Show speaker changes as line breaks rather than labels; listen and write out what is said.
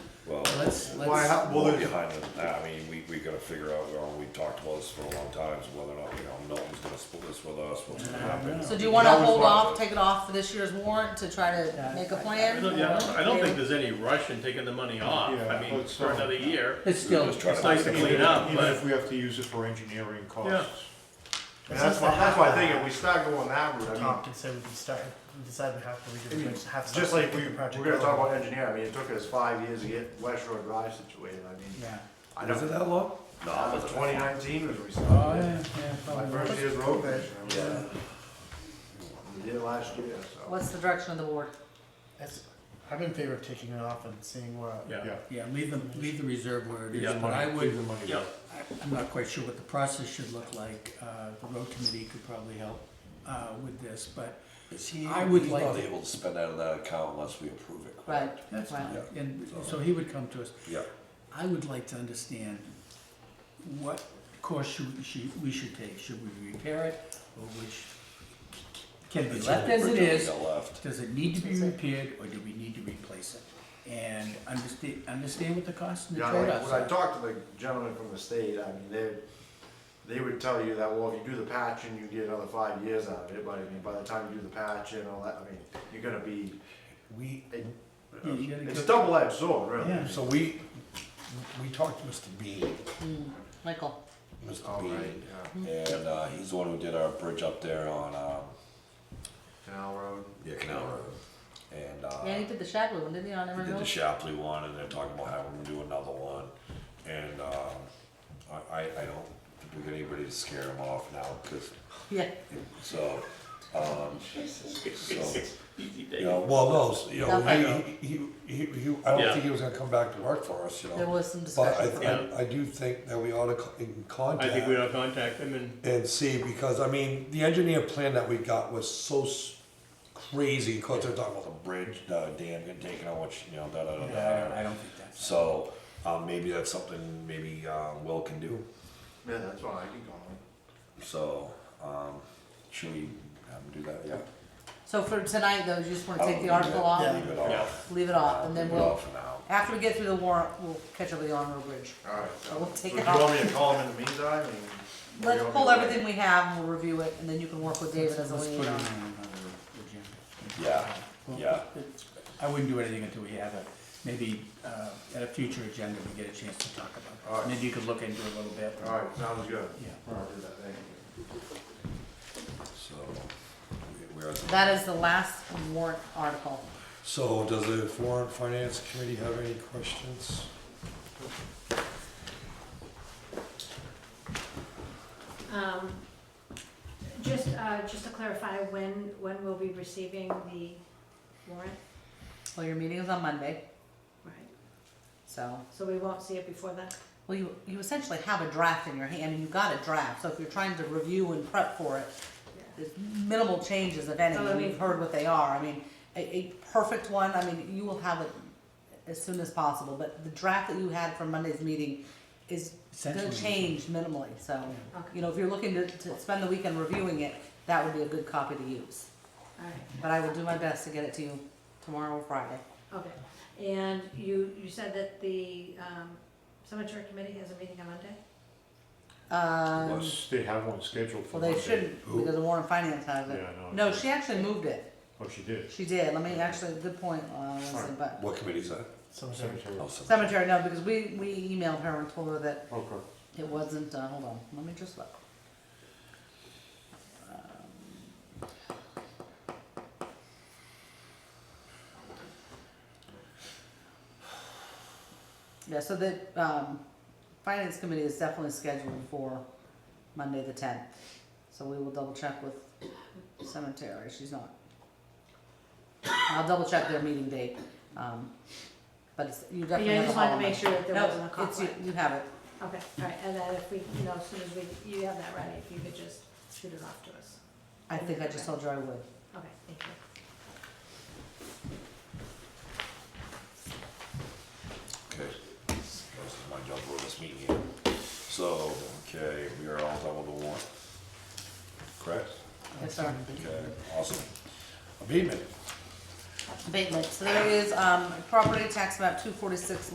let's,
Why,
let's,
how, well,
Well,
there's,
behind it, I mean, we, we gotta figure out, well, we talked about this for a long time, is whether or not, you know, Milton's gonna split this with us, what's gonna happen.
so do you wanna
That was
hold
one of
off,
it.
take it off for this year's warrant to try to make a
I
plan?
don't, yeah, I don't- I don't think there's any rush in taking the money off, I
Yeah, oh,
mean,
but
for
so-
another year.
It's still,
Just try
It's nice to clean up,
even
but-
if we have to use it for engineering
Yeah.
costs. And that's my, that's my thing, if we start going that route, I mean,
talked and said we can start, we decided we have to
I
redo
mean,
it, just have
just
something
like
to
we,
get the
we're
project
gonna talk
going.
about engineering, I mean, it took us five years to get West Shore Drive situated, I mean,
Yeah.
I
Was it
know,
that long?
that
No,
was
it
twenty
wasn't.
nineteen was when we
Oh,
started.
yeah, yeah,
My
probably.
first year's road commissioner, I was-
Yeah.
we did it last year, so.
what's the direction of the board?
That's- I'm in favor of taking it off and seeing where.
Yeah.
Yeah, leave the, leave the reserve where it is,
Yeah.
but I would,
the money.
Yeah.
I'm not quite sure what the process should look like. Uh, The road committee could probably help uh, with this, but
Is he,
I would
he's
like
not
to-
able to spend out of that account unless we approve it,
Right,
correct?
that's,
right.
Yeah.
and so he would come to us.
Yeah,
I would like to understand what course should, we- should, we should take. Should we repair it or which, can it be left as it is?
We got left.
Does it need to be repaired or do we need to replace it? And understand, understand what the cost and the
Yeah, like,
trade-offs
when I
are.
talked to the gentleman from the state, I mean, they, they would tell you that, well, if you do the patch and you get another five years out of it, but I mean, by the time you do the patch and all that, I mean, you're gonna be,
We,
it-
Yeah, you gotta
it's a
get-
double edged sword, really.
Yeah.
so we, we talked to Mr. Bean,
Michael,
Mr.
All right,
Bean,
yeah,
and, uh, he's the one who did our bridge up there on, um,
Canal Road.
yeah, Canal Road. And, uh.
yeah, he did the Shapley one, didn't he, on
We
Emerald
did the
Hill?
Shapley one, and they're talking about having them do another one, and, um, I, I, I don't think we got anybody to scare them off now, cause,
Yeah,
so, um,
Oh.
so,
Easy
you
day.
know, well, no, s- you know,
Nothing.
he, he, he, he, I don't
Yeah.
think he was gonna come back to work for us, you know.
there was some
But
discussion.
I, I, I do think that we ought to co- in
I think
contact
we ought to contact them and
and see, because I mean, the engineer plan that we got was so s- crazy, cause they're talking about
the bridge, the dam getting taken out, which, you know, da, da, da,
Yeah, I
da.
don't, I don't think that's.
So, um, maybe that's something maybe, um, Will can do,
Yeah, that's why I can call him.
so, um, should we have him do that, yeah?
So for tonight, though, you just wanna
I
take
would
the
leave
article
it-
off,
Leave it
Yeah.
off.
leave it off, and then
Leave it off
we'll,
for now.
after we get through the warrant, we'll catch up with the on-road bridge.
All right.
So we'll take
So
it
do you want
off.
me to call him in the meantime? and- or
Let's
you want me
pull
to-
everything we have and we'll review it, and then you can work with David as a
Let's put it
liaison.
on the agenda.
Yeah,
Well,
yeah.
it's- I wouldn't do anything until we have a, maybe, uh, at a future agenda, we get a chance to talk
All
about
right.
this. Maybe you could look into it a little bit.
All right, sounds good.
Yeah.
All right, I'll do that, thank you.
So, we- we are.
That is the last warrant article.
So does the Foreign Finance Committee have any questions?
Um, Just, uh, just to clarify, when, when we'll be receiving the warrant,
Well, your meeting is on Monday,
right?
so,
So we won't see it before then?
well, you, you essentially have a draft in your hand, and you got a draft, so if you're trying to review and prep for it, there's minimal changes if any,
Oh, I
and
mean-
we've heard what they are, I mean, a, a perfect one, I mean, you will have it as soon as possible, but the draft that you had from Monday's meeting is gonna
Essentially.
change minimally, so,
Okay,
you know, if you're looking to, to spend the weekend reviewing it, that would be a good copy to use,
all right,
but I will do my best to get it to you tomorrow or Friday.
okay. And you, you said that the um, cemetery committee has a meeting on Monday?
Um,
Unless they have one scheduled for
Well, they
Monday.
shouldn't, because the Warren Finance has
Yeah,
it.
I know.
No, she actually moved it.
Oh, she did.
She did. Let me, actually, good point, uh, Leslie, but.
What committee's that?
Cemetery.
Oh, cemetery.
Cemetery, no, because we, we emailed her and told her that
Okay.
it wasn't, uh, hold on, let me just look. Um, Yeah, so the, um, finance committee is definitely scheduled for Monday the tenth, so we will double check with cemetery, she's not. I'll double check their meeting date, um, but it's, you definitely
Yeah, I
have a
just wanted
call
to
on
make
that.
sure that there
No,
wasn't a
it's- you-
conflict.
You have it.
Okay, all right, and then if we, you know, as soon as we, you have that ready, if you could just shoot it off to us.
I think I just told you I would.
Okay, thank you.
Okay, this is my job for this meeting here. So, okay, we are all done with the warrant. Correct?
Yes, sir.
Okay, awesome. Abatement.
Abatement, so there is, um, property tax map two forty-six